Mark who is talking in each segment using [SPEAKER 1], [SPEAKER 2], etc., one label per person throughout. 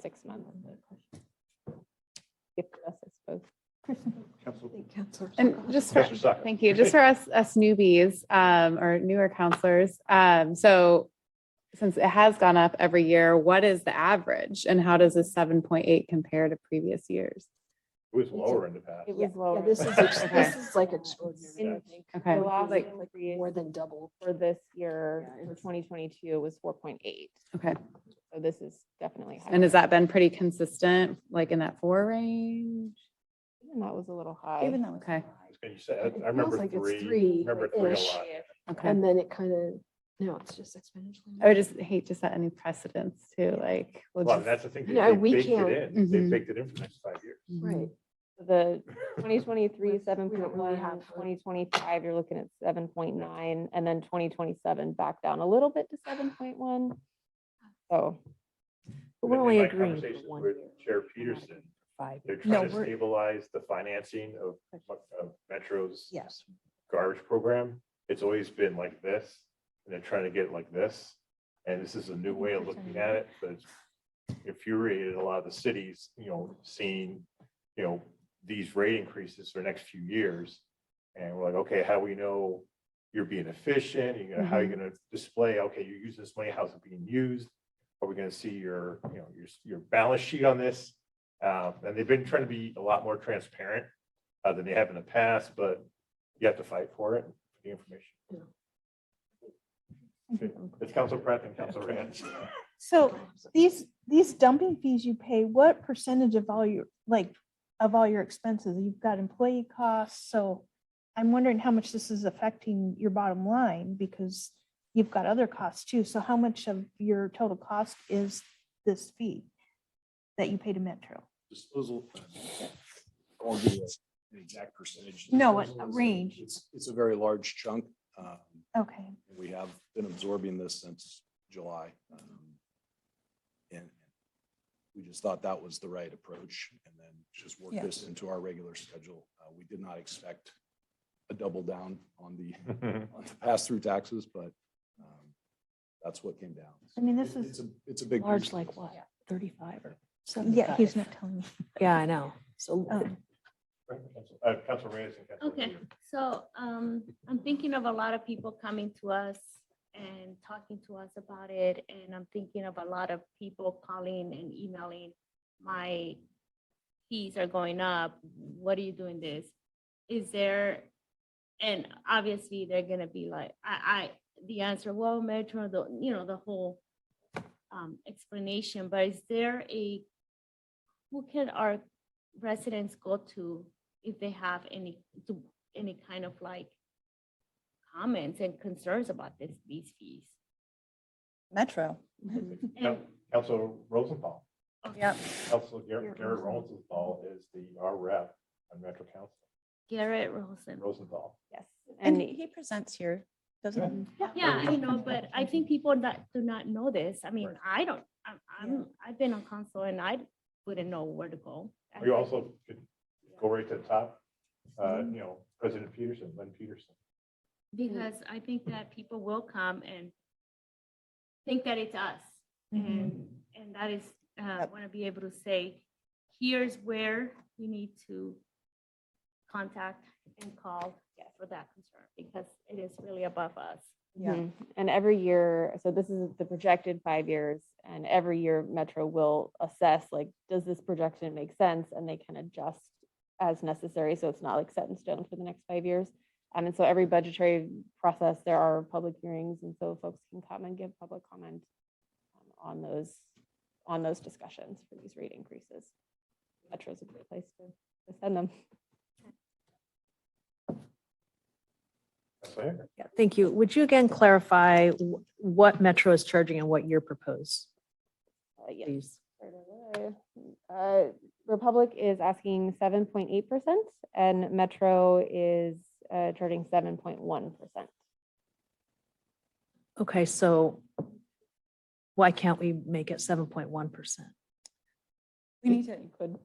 [SPEAKER 1] six months. Gift us, I suppose.
[SPEAKER 2] Council.
[SPEAKER 1] And just for,
[SPEAKER 2] Counselor Soccer.
[SPEAKER 1] thank you, just for us, us newbies, um, or newer counselors, um, so since it has gone up every year, what is the average and how does this seven point eight compare to previous years?
[SPEAKER 2] It was lower in the past.
[SPEAKER 3] Yeah, yeah,
[SPEAKER 1] lower.
[SPEAKER 3] This is, ex-
[SPEAKER 1] Okay.
[SPEAKER 3] this is like extraordinary.
[SPEAKER 1] Okay.
[SPEAKER 3] It was
[SPEAKER 4] Like,
[SPEAKER 3] like More than double.
[SPEAKER 4] for this year,
[SPEAKER 3] Yeah,
[SPEAKER 4] for
[SPEAKER 3] it's-
[SPEAKER 4] twenty twenty-two, was four point eight.
[SPEAKER 1] Okay,
[SPEAKER 4] So this is definitely. higher.
[SPEAKER 1] and has that been pretty consistent, like in that four range?
[SPEAKER 4] Even that was a little high.
[SPEAKER 5] Even though.
[SPEAKER 1] Okay,
[SPEAKER 2] And you said,
[SPEAKER 3] It feels
[SPEAKER 2] I remember
[SPEAKER 3] like it's
[SPEAKER 2] three,
[SPEAKER 3] three,
[SPEAKER 2] remember three a
[SPEAKER 3] ish.
[SPEAKER 2] lot.
[SPEAKER 1] okay.
[SPEAKER 3] And then it kind of, no, it's just exponentially.
[SPEAKER 1] I would just hate to set any precedents too, like. we'll
[SPEAKER 2] Well,
[SPEAKER 1] just-
[SPEAKER 2] that's the thing, they
[SPEAKER 3] No,
[SPEAKER 2] they
[SPEAKER 3] we
[SPEAKER 2] baked it
[SPEAKER 3] can't. Mm-hmm.
[SPEAKER 2] in, they
[SPEAKER 1] Mhm.
[SPEAKER 2] baked it in for the next five years.
[SPEAKER 3] Right.
[SPEAKER 4] The twenty twenty-three,
[SPEAKER 3] We don't
[SPEAKER 4] seven
[SPEAKER 3] really
[SPEAKER 4] point one,
[SPEAKER 3] have a-
[SPEAKER 4] twenty twenty-five, you're looking at seven point nine, and then twenty twenty-seven back down a little bit to seven point one. So,
[SPEAKER 3] But we're
[SPEAKER 2] In
[SPEAKER 3] only
[SPEAKER 2] my
[SPEAKER 3] agreeing for
[SPEAKER 2] conversations
[SPEAKER 3] one
[SPEAKER 2] with
[SPEAKER 3] year.
[SPEAKER 2] Chair
[SPEAKER 3] We're not
[SPEAKER 2] Peterson,
[SPEAKER 3] Five.
[SPEAKER 2] They're
[SPEAKER 5] No,
[SPEAKER 2] trying to
[SPEAKER 5] we're-
[SPEAKER 2] stabilize the financing of, of Metro's
[SPEAKER 5] Yes.
[SPEAKER 2] garbage program. It's always been like this, and they're trying to get it like this. And this is a new way of looking at it, but it's infuriated a lot of the cities, you know, seeing, you know, these rate increases for the next few years. And we're like, okay, how do we know you're being efficient? You know, how are you gonna display, okay, you use this money, how's it being used? Are we gonna see your, you know, your, your balance sheet on this? Uh, and they've been trying to be a lot more transparent uh, than they have in the past, but you have to fight for it, for the information. Okay, It's Council Pratt and Council Rand.
[SPEAKER 5] So these, these dumping fees you pay, what percentage of all your, like, of all your expenses? You've got employee costs, so I'm wondering how much this is affecting your bottom line because you've got other costs too. So how much of your total cost is this fee that you pay to Metro?
[SPEAKER 6] disposal. I won't give you an exact percentage.
[SPEAKER 5] No, a- a
[SPEAKER 6] Disposal is-
[SPEAKER 5] range.
[SPEAKER 6] It's, it's a very large chunk. um,
[SPEAKER 5] Okay,
[SPEAKER 6] and We have been absorbing this since July. um, And we just thought that was the right approach and then just work
[SPEAKER 5] Yeah.
[SPEAKER 6] this into our regular schedule. Uh, We did not expect a double down on the, on the pass-through taxes, but um, that's what came down.
[SPEAKER 5] I mean, this
[SPEAKER 6] It-
[SPEAKER 5] is-
[SPEAKER 6] It's a, it's a big.
[SPEAKER 3] Large
[SPEAKER 6] piece.
[SPEAKER 3] like what? Thirty-five or
[SPEAKER 5] yeah, he's not telling me.
[SPEAKER 3] Yeah, I know. So
[SPEAKER 5] Um,
[SPEAKER 2] Uh, Council Reyes and Council.
[SPEAKER 7] Okay,
[SPEAKER 2] Rand.
[SPEAKER 7] so um, I'm thinking of a lot of people coming to us and talking to us about it. And I'm thinking of a lot of people calling and emailing, my fees are going up. What are you doing this? Is there, and obviously they're gonna be like, I, I, the answer, well, Metro, the, you know, the whole um, explanation, but is there a, who can our residents go to if they have any, to, any kind of like comments and concerns about this, these fees.
[SPEAKER 5] Metro.
[SPEAKER 7] And, oh,
[SPEAKER 2] Council Rosenthal,
[SPEAKER 7] okay,
[SPEAKER 2] Council Garrett Garrett Rosenthal is the, our rep on Metro Council,
[SPEAKER 7] Garrett Rosen.
[SPEAKER 2] Rosenthal.
[SPEAKER 4] yes.
[SPEAKER 5] And
[SPEAKER 4] And
[SPEAKER 5] he presents here, doesn't he?
[SPEAKER 7] Yeah, I know, but I think people that do not know this, I mean,
[SPEAKER 2] Right.
[SPEAKER 7] I don't, I'm, I'm, I've been on council and I wouldn't know where to go.
[SPEAKER 2] You also could go right to the top, uh, you know, President Peterson, Lynn Peterson.
[SPEAKER 7] Because I think that people will come and think that it's us. And, and that is, uh,
[SPEAKER 5] Yep.
[SPEAKER 7] want to be able to say, here's where you need to contact and call for that concern, because it is really above us.
[SPEAKER 5] Yeah.
[SPEAKER 4] Mhm. And every year, so this is the projected five years, and every year Metro will assess, like, does this projection make sense? And they can adjust as necessary, so it's not like set in stone for the next five years. Um, And so every budgetary process, there are public hearings, and so folks can come and give public comment um, on those, on those discussions for these rate increases. Metro's a great place to to send them.
[SPEAKER 2] That's right.
[SPEAKER 8] Yeah, thank you. Would you again clarify wh- what Metro is charging and what your propose,
[SPEAKER 4] Uh, yeah.
[SPEAKER 8] please?
[SPEAKER 4] Right away. Uh, Republic is asking seven point eight percent and Metro is uh, charging seven point one percent.
[SPEAKER 8] Okay, so why can't we make it 7.1%?
[SPEAKER 5] We need to
[SPEAKER 4] Could.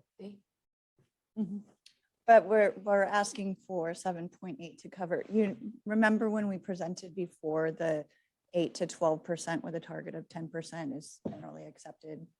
[SPEAKER 9] But we're, we're asking for seven point eight to cover. You remember when we presented before the eight to twelve percent with a target of ten percent is generally accepted